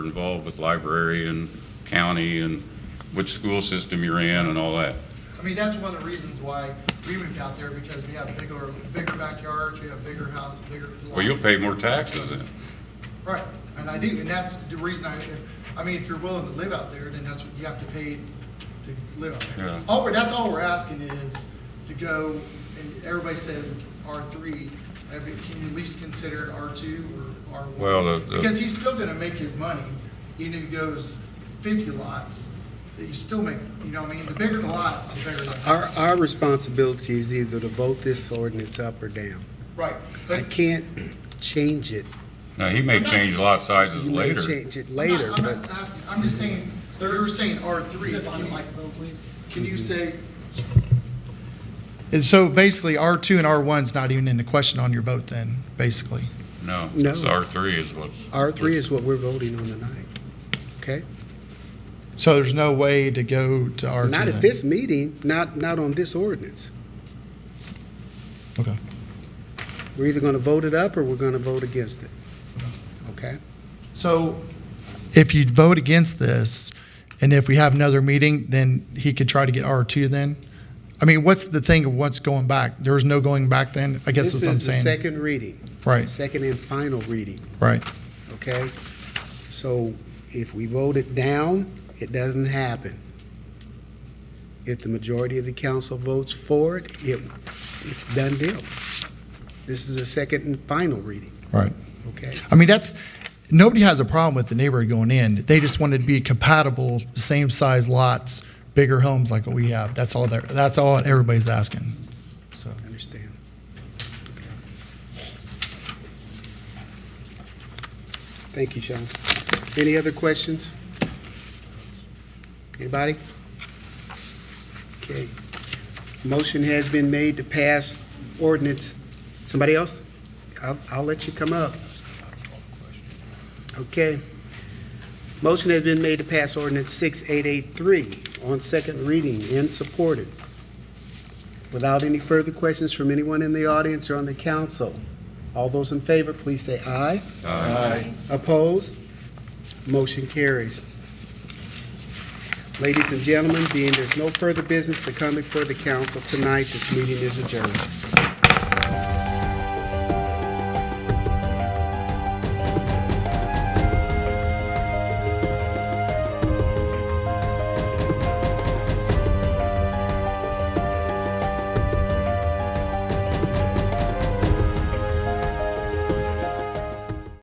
involved with library and county and which school system you're in and all that. I mean, that's one of the reasons why we moved out there, because we have bigger, bigger backyards, we have bigger houses, bigger lots. Well, you'll pay more taxes then. Right, and I do, and that's the reason I, I mean, if you're willing to live out there, then that's what you have to pay to live out there. Yeah. All we're, that's all we're asking is to go, and everybody says R three, can you at least consider it R two or R one? Well, the- the- Because he's still gonna make his money, even if he goes fifty lots, that you still make, you know what I mean? The bigger the lot, the bigger the Our, house. our responsibility is either to vote this ordinance up or down. Right, I but can't change it. Now, he may change lot sizes You may later. change it I'm not- later, I'm but not asking, I'm just saying, you were saying R three. Step on the microphone, please. Can you say? And so basically, R2 and R1's not even in the question on your vote then, basically. No, No. it's R three is what's. R three is what we're voting on tonight, okay? So there's no way to go to R2 Not at this meeting, not, not on this ordinance. Okay. We're either gonna vote it up or we're gonna vote against it, okay? So if you vote against this, and if we have another meeting, then he could try to get R2 then? I mean, what's the thing of what's going back? There is no going back then? I guess This that's what I'm is the saying. second reading, Right, second and final reading, right. okay? So if we vote it down, it doesn't happen. If the majority of the council votes for it, it, it's done deal. This is a second and final reading, Right. okay? I mean, that's, nobody has a problem with the neighborhood going in. They just want it to be compatible, same size lots, bigger homes like what we have. That's all they're, that's all everybody's asking. So, Understand. Okay. Thank you, Sean. Any other questions? Anybody? Okay. Motion has been made to pass ordinance. Somebody else? I'll, I'll let you come up. Okay. Motion has been made to pass ordinance 6883 on second reading and supported. Without any further questions from anyone in the audience or on the council, all those in favor, please say aye. Aye. Opposed? Motion carries. Ladies and gentlemen, being there's no further business to come before the council tonight, this meeting is adjourned.